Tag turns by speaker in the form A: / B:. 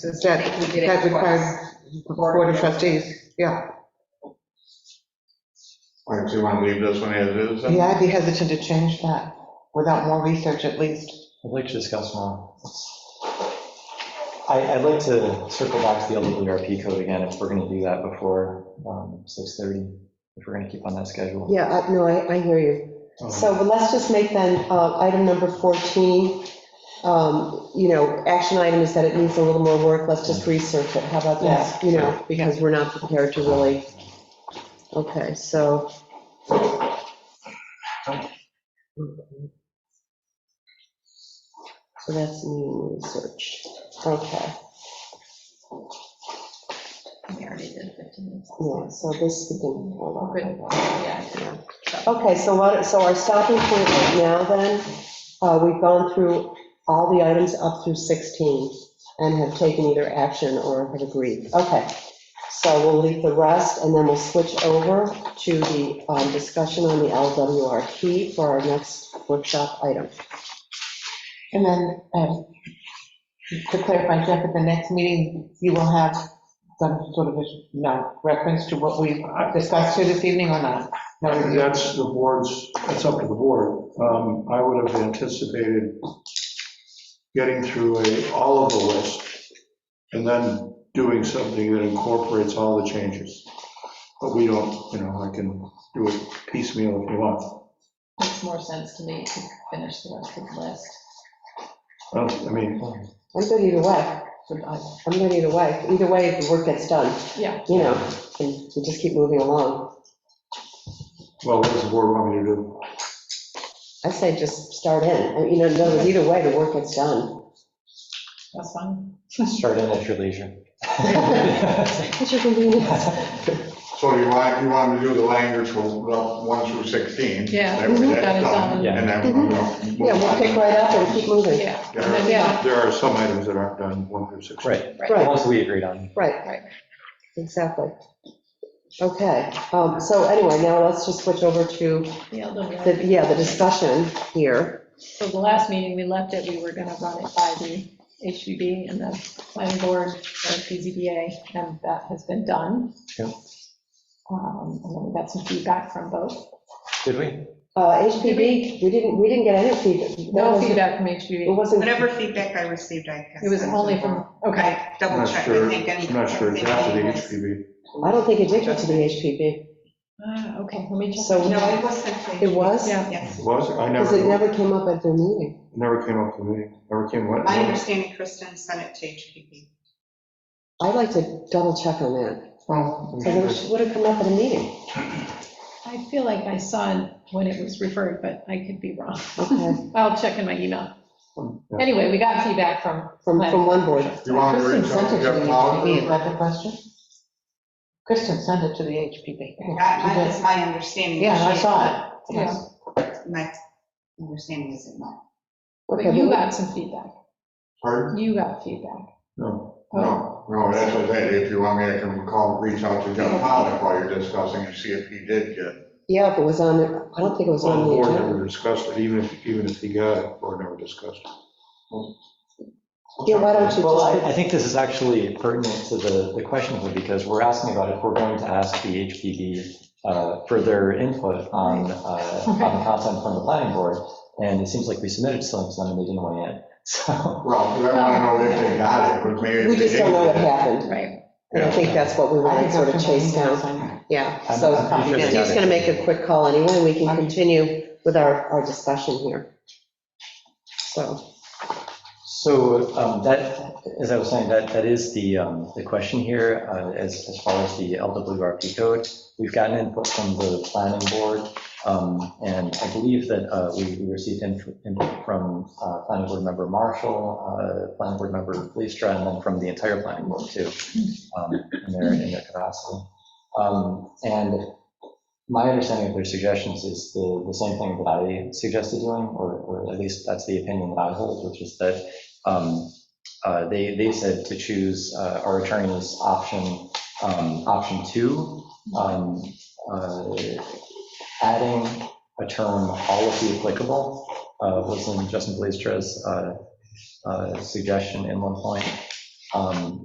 A: Is that,
B: I think we did it
A: that requires
B: twice.
A: the board of trustees, yeah.
C: All right, so you want to leave this one as it is? then?
A: Yeah, I'd be hesitant to change that without more research at least.
D: I'd like to discuss more. I, I'd like to circle back to the LWRP code again, if we're going to do that before um, 6:30, if we're going to keep on that schedule.
E: Yeah, I- no, I, I hear you.
D: Um,
E: So, but let's just make then, uh, item number 14, um, you know, action item is that it needs a little more work, let's just research it, how about that? You know, because we're not prepared to really, okay, so. So that's new research, okay,
B: We already did 15 minutes.
E: yeah, so this we can hold
B: Good.
E: on.
B: Yeah, I know.
E: Okay, so what, so our stopping point right now then, uh, we've gone through all the items up through 16 and have taken either action or have agreed. Okay, so we'll leave the rest and then we'll switch over to the um, discussion on the LWRP for our next workshop item.
A: And then, um, to clarify, Jeff, at the next meeting, you will have some sort of, you know, reference to what we discussed here this evening or not? No,
F: I think
A: you-
F: That's the board's, that's up to the board. Um, I would have anticipated getting through a, all of the list, and then doing something that incorporates all the changes. But we don't, you know, I can do it piecemeal if you want.
B: Makes more sense to me to finish the rest of the list.
F: I don't- I mean,
E: I'm good either way,
B: But I-
E: I'm good either way, either way, the work gets done,
B: Yeah,
E: you know, and we just keep moving along.
F: well, what does the board want me to do?
E: I say just start in, I mean, you know, no, either way, the work gets done.
B: that's fine.
D: Start in at your leisure.
E: What's your convenience?
C: So you want, you want to do the language from well, 1 through 16?
B: Yeah,
C: That way
B: that
C: that's
B: is
C: done,
B: on,
D: Yeah.
B: yeah.
C: and then we'll move
E: Yeah, we'll
C: on.
E: pick right up and keep moving.
B: And then, yeah,
F: There are some items that aren't done, one through six.
D: Right, the
E: Right,
D: ones we agreed on.
E: right, exactly. Okay, um, so anyway, now let's just switch over to,
B: the LWRP.
E: the yeah, the discussion here.
B: So the last meeting, we left it, we were gonna run it by the HVB and the planning board and PZBA, and that has been done.
D: Yep.
B: Um, And then we got some feedback from both.
D: Did we?
E: Uh, HPV, we didn't, we didn't get any feedback.
B: No
E: That
B: feedback from
E: wasn't- It
B: HVB.
E: wasn't,
G: Whatever feedback I received, I guess.
B: It was only from, okay,
G: I
F: I'm
G: double
F: not
G: checked,
F: sure-
G: I think. any-
F: I'm not sure it's after the
G: anything was-
F: HPV.
E: I don't think it did get to the HPV.
B: Ah, okay, let me check.
E: So
G: No, it was sent to.
E: It was?
B: Yeah.
G: Yes.
F: Was it? I
E: Because it
F: never,
E: never came up at their meeting.
F: never came up to me, never came, what?
G: My understanding, Kristen sent it to HPP.
E: I'd like to double check on that,
F: Oh,
E: because it would have come up at a meeting.
B: I feel like I saw it when it was referred, but I could be wrong.
E: Okay,
B: I'll check in my email.
F: yeah.
B: Anyway, we got feedback from,
E: from, from one board.
C: You want to read
A: Kristen
C: something,
A: sent it to the
C: Jeff Powell?
A: HPP, is that the question? Kristen sent it to the HPP.
G: That that is my understanding.
A: Yeah, I
G: She-
A: saw it.
B: yeah,
A: Yes.
G: My understanding is it not.
B: but
E: Okay,
B: you
E: we-
B: got some feedback.
C: Pardon?
B: You got feedback.
F: No,
B: Oh,
C: No, no, that's what I said, if you want me, I can call, reach out to Jeff Powell while you're discussing and see if he did get.
E: Yeah, if it was on, the- I don't think it was
F: well,
E: on
F: the
E: the
F: board
E: agenda.
F: never discussed it, even if, even if he got it, the board never discussed it.
E: Yeah, why don't you
D: Well, I,
E: just,
D: I think this is actually pertinent to the, the question here, because we're asking about if we're going to ask the HPD uh, for their input on, uh, on the content from the planning board, and it seems like we submitted something to them and they didn't weigh in, so.
C: Well, I want to know if they got it, but maybe if
E: we
C: they
E: just don't
C: didn't
E: know what
C: get it.
E: happened.
B: Right.
E: And I think that's what we
A: I
E: want
A: think
E: to sort of
A: that's what
E: chase
A: the email
E: down.
A: sent.
E: Yeah,
D: I'm-
E: so
D: I'm pretty sure they got
E: Steve's
D: it.
E: going to make a quick call anyway, we can continue with our, our discussion here. So,
D: So um, that, as I was saying, that, that is the, um, the question here, uh, as, as far as the LWRP code. We've gotten input from the planning board, um, and I believe that uh, we we received inf- input from uh, planning board member Marshall, uh, planning board member Leestra, and then from the entire planning board too, um, in their, in their capacity. Um, And my understanding of their suggestions is the, the same thing that I suggested doing, or, or at least that's the opinion that I hold, which is that um, uh, they, they said to choose uh, our attorney's option, um, option two, um, uh, adding a term, all of the applicable, uh, was in Justin Blaistra's uh, uh, suggestion in one point. um,